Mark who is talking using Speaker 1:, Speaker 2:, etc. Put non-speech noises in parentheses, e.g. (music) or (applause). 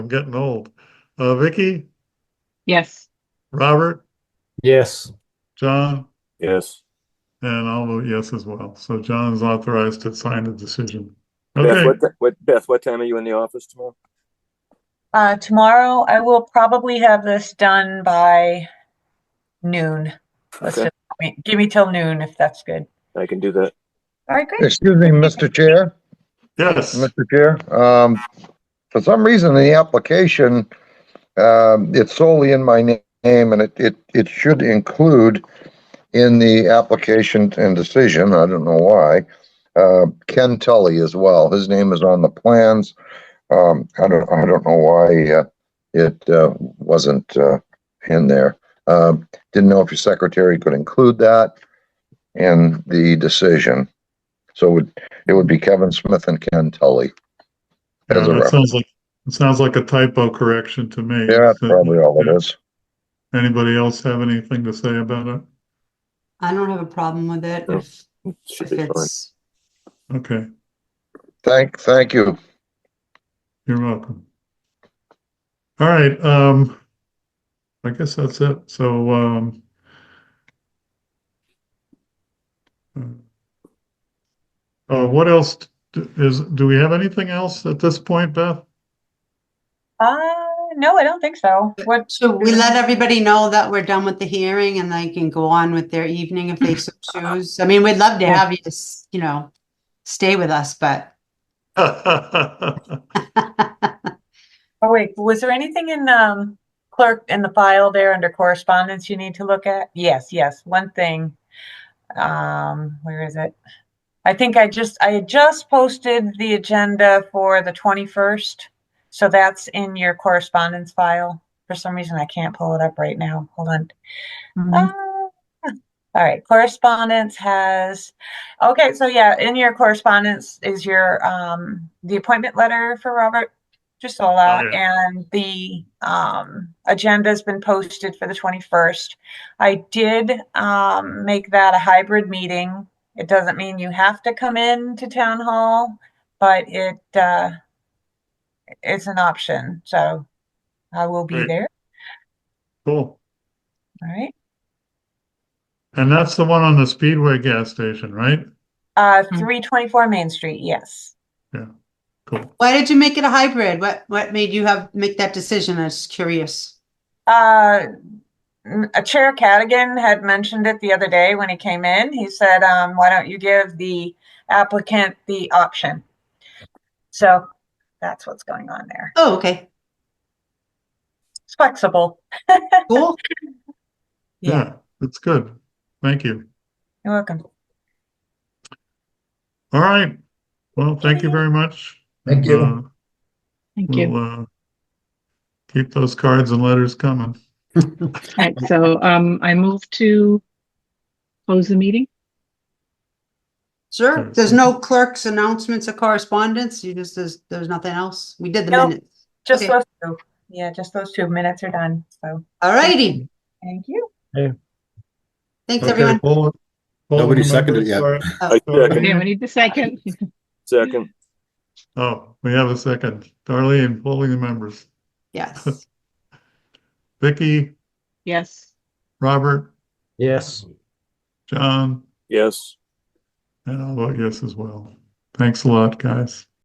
Speaker 1: I'm getting old. Uh, Vicky,
Speaker 2: Yes.
Speaker 1: Robert,
Speaker 3: Yes.
Speaker 1: John,
Speaker 4: Yes.
Speaker 1: and I'll vote yes as well. So John is authorized to sign the decision.
Speaker 4: Beth,
Speaker 1: Okay,
Speaker 4: what, ti- what, Beth, what time are you in the office tomorrow?
Speaker 5: Uh, tomorrow, I will probably have this done by noon. Let's
Speaker 4: Okay.
Speaker 5: just, I mean, give me till noon if that's good.
Speaker 4: I can do that.
Speaker 5: All right, great.
Speaker 6: Excuse me, Mr. Chair,
Speaker 1: yes,
Speaker 6: Mr. Chair. Um, for some reason, in the application, um, it's solely in my na- name and it, it, it should include in the application and decision, I don't know why, uh, Ken Tully as well. His name is on the plans. Um, I don't, I don't know why, uh, it, uh, wasn't, uh, in there. Um, didn't know if your secretary could include that in the decision. So it would it would be Kevin Smith and Ken Tully.
Speaker 1: Yeah,
Speaker 6: As a
Speaker 1: that
Speaker 6: rep.
Speaker 1: sounds like, it sounds like a typo correction to me.
Speaker 6: Yeah, that's
Speaker 1: So,
Speaker 6: probably all it is.
Speaker 1: Anybody else have anything to say about it?
Speaker 7: I don't have a problem with it
Speaker 4: No,
Speaker 7: if,
Speaker 4: Should
Speaker 7: if
Speaker 4: be fine.
Speaker 7: it's,
Speaker 1: Okay,
Speaker 6: Thank, thank you.
Speaker 1: you're welcome. All right, um, I guess that's it. So, um, uh, what else d- is, do we have anything else at this point, Beth? (laughs)
Speaker 5: Uh, no, I don't think so. What,
Speaker 7: so we let everybody know that we're done with the hearing and they can go on with their evening if they so choose. I mean, we'd love to have you, s- you know, stay with us, but (laughs)
Speaker 5: oh wait, was there anything in, um, clerk, in the file there under correspondence you need to look at? Yes, yes, one thing. Um, where is it? I think I just, I had just posted the agenda for the twenty-first. So that's in your correspondence file. For some reason, I can't pull it up right now. Hold on.
Speaker 2: Mhm.
Speaker 5: Uh,
Speaker 1: Mm-hmm.
Speaker 5: All right, correspondence has, okay, so yeah, in your correspondence is your, um, the appointment letter for Robert Gisola
Speaker 1: Oh,
Speaker 5: and the, um, agenda's been posted for the twenty-first. I did, um, make that a hybrid meeting. It doesn't mean you have to come in to town hall, but it, uh, it's an option, so I will be
Speaker 1: Great.
Speaker 5: there,
Speaker 1: Cool.
Speaker 5: all right?
Speaker 1: And that's the one on the Speedway gas station, right?
Speaker 5: Uh,
Speaker 2: Hmm.
Speaker 5: three twenty-four Main Street, yes.
Speaker 1: Cool.
Speaker 7: why did you make it a hybrid? What, what made you have, make that decision? I was curious.
Speaker 5: Uh, n- uh, Chair Cadigan had mentioned it the other day when he came in. He said, um, why don't you give the applicant the option? So that's what's going on there.
Speaker 7: Oh, okay,
Speaker 5: It's flexible.
Speaker 7: cool.
Speaker 1: Yeah, that's good. Thank you.
Speaker 5: You're welcome.
Speaker 1: All right. Well, thank you very much.
Speaker 3: Thank you.
Speaker 1: And, uh,
Speaker 2: Thank you.
Speaker 1: We'll, uh, keep those cards and letters coming.
Speaker 2: All right, so um, I move to close the meeting.
Speaker 7: Sure. There's no clerk's announcements or correspondence. You just, there's, there's nothing else. We did the
Speaker 5: No.
Speaker 7: minutes.
Speaker 5: Just
Speaker 7: Okay.
Speaker 5: those two. Yeah, just those two minutes are done. So
Speaker 7: All righty.
Speaker 5: thank you.
Speaker 7: Thanks,
Speaker 1: Okay,
Speaker 7: everyone.
Speaker 1: poll- poll
Speaker 8: Nobody
Speaker 1: the
Speaker 8: seconded it yet.
Speaker 1: members for-
Speaker 4: I
Speaker 8: (laughs)
Speaker 4: second,
Speaker 2: Yeah, we need the second.
Speaker 4: second.
Speaker 1: Oh, we have a second. Darlene, polling the members.
Speaker 7: Yes.
Speaker 1: Vicky,
Speaker 2: Yes.
Speaker 1: Robert,
Speaker 3: Yes.
Speaker 1: John,
Speaker 4: Yes.
Speaker 1: and I'll vote yes as well. Thanks a lot, guys.